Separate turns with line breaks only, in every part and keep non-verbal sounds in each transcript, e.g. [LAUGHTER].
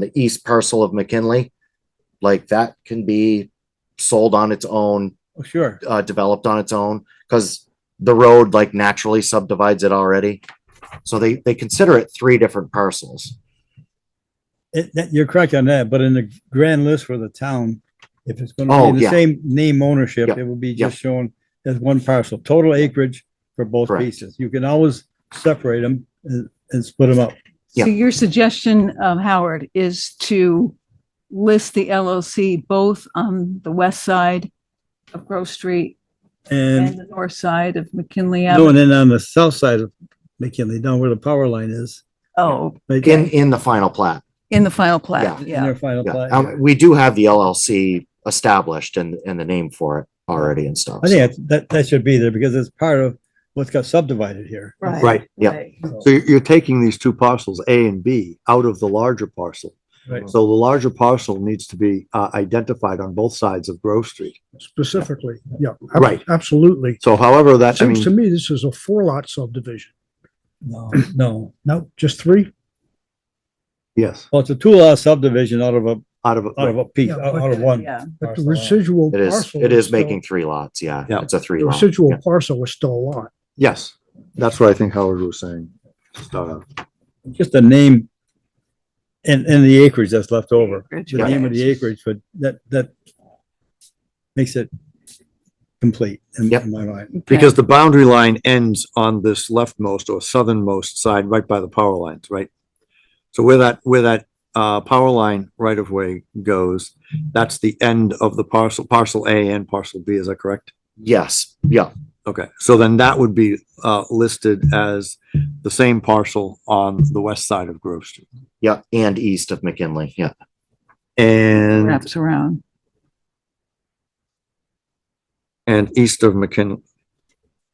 the east parcel of McKinley, like that can be sold on its own,
Oh, sure.
uh, developed on its own, because the road like naturally subdivides it already. So they, they consider it three different parcels.
It, that, you're correct on that, but in the grand list for the town, if it's
Oh,
gonna be the
yeah.
same name ownership,
Yep,
it will be
yep.
just shown as one parcel, total acreage for both
Correct.
pieces. You can always separate them and, and split them up.
Yeah.
So your suggestion, um, Howard, is to list the LLC both on the west side of Grove Street and
And
the north side of McKinley Avenue?
going in on the south side of McKinley, down where the power line is.
Oh,
right
In, in the final plat.
in the final plat,
In
yeah.
their final
Yeah.
plat.
Um, we do have the LLC established and, and the name for it already and stuff.
I think that- that, that should be there because it's part of what's got subdivided here.
Right.
Yeah.
So you're, you're taking these two parcels, A and B, out of the larger parcel.
Right.
So the larger parcel needs to be uh, identified on both sides of Grove Street.
specifically, yeah. ab-
Right.
Absolutely.
So however that, I
Seems to
mean,
me this is a four lot subdivision.
No, no.
No, just three?
yes,
Well, it's a two lot subdivision out of a,
out of,
out of
a
a piece,
Yeah,
out
but-
out of one.
Yeah.
But the
parcel lot.
residual
It is,
parcel.
it is
still-
making three lots. Yeah.
Yeah.
It's a three
The
lot.
residual
Yeah.
parcel is still a lot.
yes, that's what I think Howard was saying. to start off.
just the name and, and the acreage that's left over, the
Yeah.
name of the acreage, but that, that makes it complete in
Yep.
in my mind.
Because the boundary line ends on this leftmost or southernmost side, right by the power lines, right? So where that, where that, uh, power line right of way goes, that's the end of the parcel, parcel A and parcel B, is that correct?
Yes. Yeah.
Okay, so then that would be uh listed as the same parcel on the west side of Grove Street.
Yeah. And east of McKinley. Yeah.
And
Wraps around.
and east of McKinley,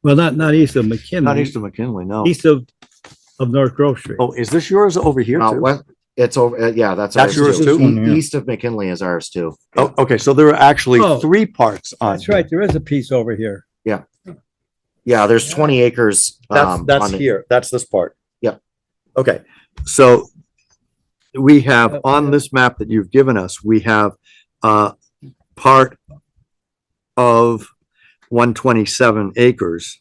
Well, not, not east of McKinley.
not east of McKinley, no.
East of, of North Grove Street.
Oh, is this yours over here
Uh,
too?
what- it's over. uh, yeah. That's,
That's
ours
yours
too?
E- East of McKinley is ours too.
Oh, okay, so there are actually
Oh.
three parts on.
That's right, there is a piece over here.
Yeah. There's 20 acres.
That's
um,
that's
on the-
here, that's this part.
Yep.
Okay, so we have on this map that you've given us, we have uh part of one twenty-seven acres.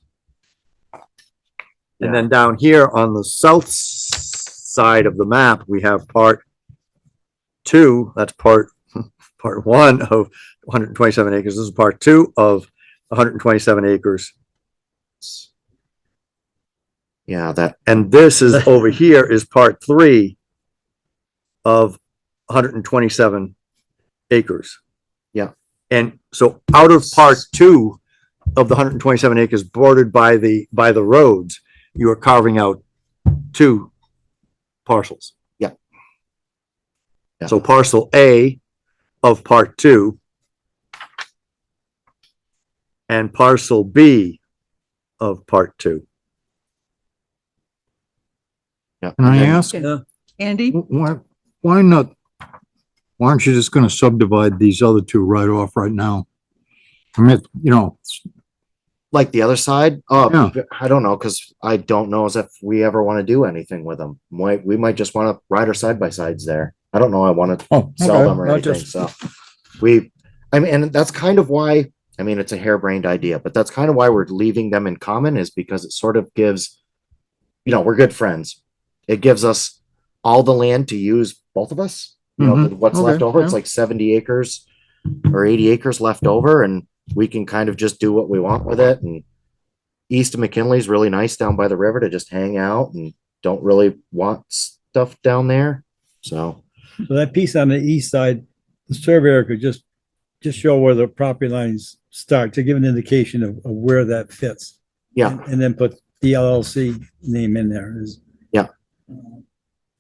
And then down here on the south s- side of the map, we have part two, that's part, [LAUGHS] part one of one hundred and twenty-seven acres. This is part two of one hundred and twenty-seven acres.
Yeah. That,
And this
[LAUGHS]
is over here is part three of hundred and twenty-seven acres.
Yeah.
And so out of part two of the hundred and twenty-seven acres bordered by the, by the roads, you are carving out two parcels.
Yeah. Yeah.
So parcel A of part two and parcel B of part two.
yeah.
Can I ask,
uh,
Okay. Andy?
wh- why, why not, why aren't you just gonna subdivide these other two right off right now? I mean, you know,
Like the other side? Uh,
Yeah.
I don't know. Cause I don't know as if we ever want to do anything with them. Might, we might just want to ride our side by sides there. I don't know. I want to
oh,
sell them or
I'll
anything.
just-
So we, I mean, and that's kind of why, I mean, it's a harebrained idea, but that's kind of why we're leaving them in common is because it sort of gives, you know, we're good friends. It gives us all the land to use, both of us. You know,
Mhm.
what's
Okay,
left over, it's
yeah.
like 70 acres or 80 acres left over, and we can kind of just do what we want with it. And east of McKinley's really nice down by the river to just hang out and don't really want stuff down there. So,
So that piece on the east side, the surveyor could just, just show where the property lines start to give an indication of, of where that fits.
yeah.
And- And then put the LLC name in there is.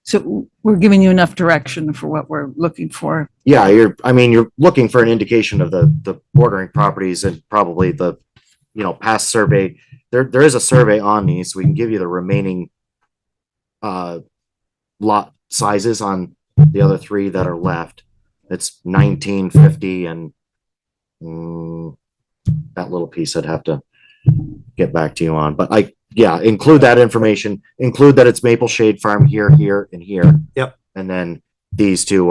So we're giving you enough direction for what we're looking for.
Yeah, you're, I mean, you're looking for an indication of the, the bordering properties and probably the, you know, past survey. There, there is a survey on these, so we can give you the remaining uh, lot sizes on the other three that are left. It's nineteen fifty and mm, that little piece I'd have to get back to you on, but I, yeah, include that information, include that it's Maple Shade Farm here, here, and here.
Yep.
And then these two